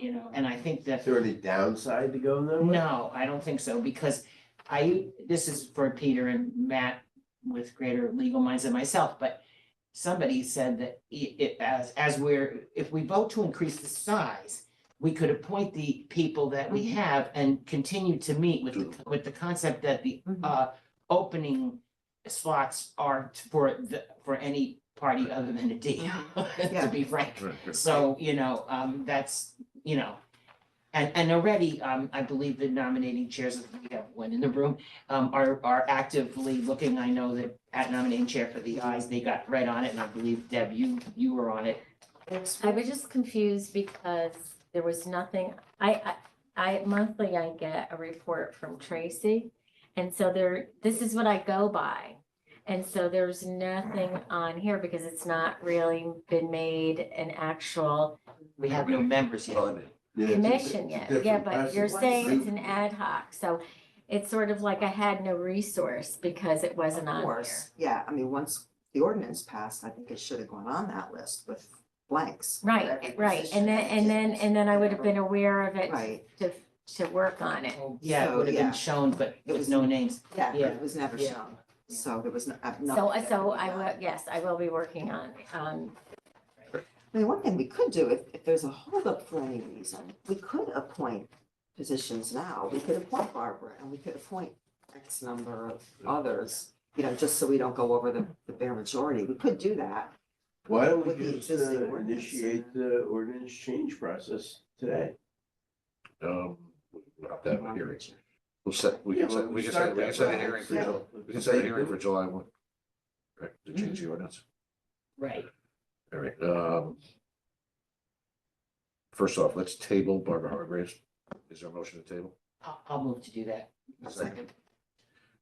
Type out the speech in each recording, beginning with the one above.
you know, and I think that. Is there any downside to going that way? No, I don't think so, because I, this is for Peter and Matt with greater legal minds than myself, but somebody said that i- it, as, as we're, if we vote to increase the size, we could appoint the people that we have and continue to meet with, the with the concept that the, Mhm. uh, opening slots are t- for the, for any party other than a D, Yeah. to be frank. So, you know, um, that's, you know, and, and already, um, I believe the nominating chairs, if we have one in the room, um, are, are actively looking. I know that at nominating chair for the eyes, they got right on it, and I believe Deb, you, you were on it. I was just confused because there was nothing, I, I, I monthly I get a report from Tracy. And so there, this is what I go by. And so there's nothing on here because it's not really been made an actual We have no members yet. Yeah, it's a- it's a commission yet. Yeah, different but you're process. saying it's an ad hoc, so it's sort of like I had no resource because it wasn't on Of here. course, yeah, I mean, once the ordinance passed, I think it should have gone on that list with blanks. for every Right, right. position. And then, and then, and then I would have been aware of it Right, to, to work on it. Oh, Yeah, it would have So, yeah. been shown, but It with was- no names. yeah, but Yeah. it was never Yeah. shown, so there was no. uh, So, nothing that so could be I done. will, yes, I will be working on, um, I mean, one thing we could do, if, if there's a holdup for any reason, we could appoint positions now. We could appoint Barbara and we could appoint X number of others, you know, just so we don't go over the, the bare majority. We could do that. Why don't With we the just existing uh, ordinance. initiate the ordinance change process today? Um, not that one hearing. We'll set, we Yeah, can set, but we can start set, we that can set a process. hearing for Yeah. July, we can set a hearing for July one. Right, to change Mm-hmm. the ordinance, Right. all right, um. First off, let's table Barbara Hargreaves, is there a motion to table? I'll, I'll move to do that. Second.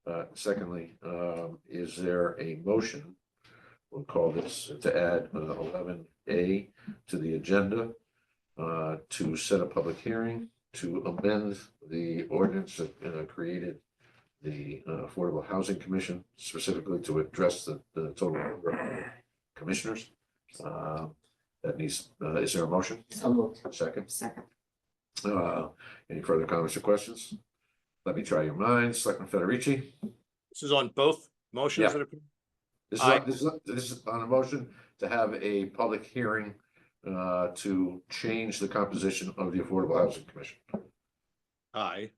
Uh, secondly, um, is there a motion? We'll call this to add uh, eleven A to the agenda. Uh, to set a public hearing to amend the ordinance that uh, created. The uh, Affordable Housing Commission specifically to address the, the total number of commissioners. Uh, that needs, uh, is there a motion? So moved. Second. Second. Uh, any further comments or questions? Let me try your minds. Selectman Federici? This is on both motions Yeah. that are- This Aye. is, this is, this is on a motion to have a public hearing uh to change the composition of the Affordable Housing Commission. aye,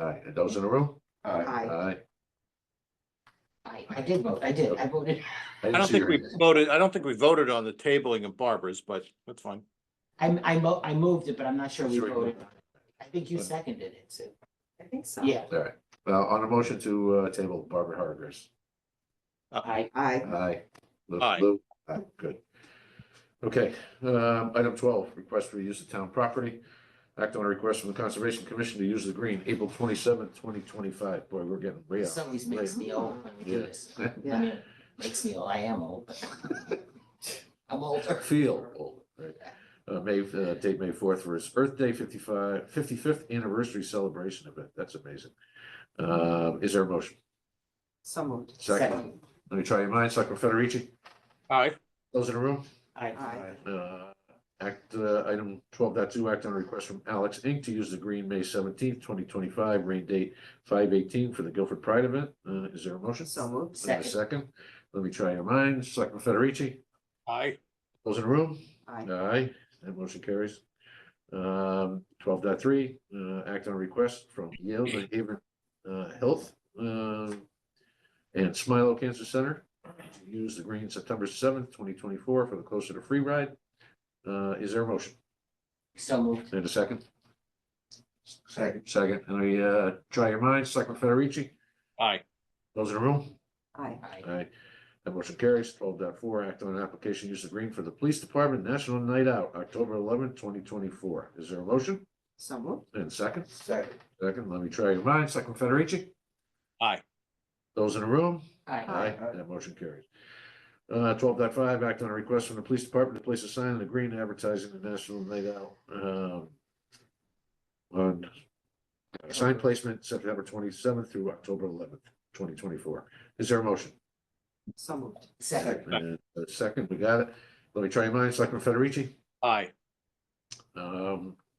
Aye, and those in the room? Aye. Aye. Aye. I, I did vote, I did, I voted. I don't think we voted, I don't think we voted on the tabling of Barbara's, but that's fine. I, I mo- I moved it, but I'm not sure we Sure. voted. on it. I think you seconded it, Sue. I think so. Yeah, All right, now on a motion to uh table Barbara Hargreaves. I, I, Aye. Lou- Aye. Lou? Aye, good. Okay, um, item twelve, request for use of town property. Act on a request from the Conservation Commission to use the green, April twenty-seventh, twenty twenty-five. Boy, we're getting way this out. always makes me old when we do this. I yeah, mean, makes me old, I am old. I'm older. Feel old, right? Uh, May, uh, date May fourth for his Earth Day 55 55th anniversary celebration event. That's amazing. Uh, is there a motion? so moved. Second, let me try your minds. Selectman Federici, Aye, those in the room? I, Aye. Uh, act, uh, item twelve dot two, act on a request from Alex Inc. to use the green May seventeenth, twenty twenty-five, rain date five eighteen for the Guilford Pride event. Uh, is there a motion? So moved. Let Second. me Second, let me try your minds. Selectman Federici, aye, those in the room? Aye. Aye, that motion carries. Um, twelve dot three, uh, act on a request from Yale New Haven, uh, Health, uh, and Smilo Cancer Center to use the green September seventh, twenty twenty-four for the Closer to Free Ride. Uh, is there a motion? so moved, And a second? Second. Second, and we, uh, try your minds, Selectman Federici, aye, those in the room? Aye. I, Aye. That motion carries. 12.4. act on an application use of green for the Police Department National Night Out, October eleventh, twenty twenty-four. Is there a motion? So moved. And second, Second. second, let me try your minds. Second Federici? Aye. Those in the room? I, Aye. That motion carries. Uh, 12.5. act on a request from the Police Department to place a sign in the green advertising the National Night Out, um, on uh, sign placement September twenty-seventh through October eleventh, twenty twenty-four. Is there a motion? So moved. second, And uh, second, we got it. Let me try your minds, Selectman Federici. aye, Um,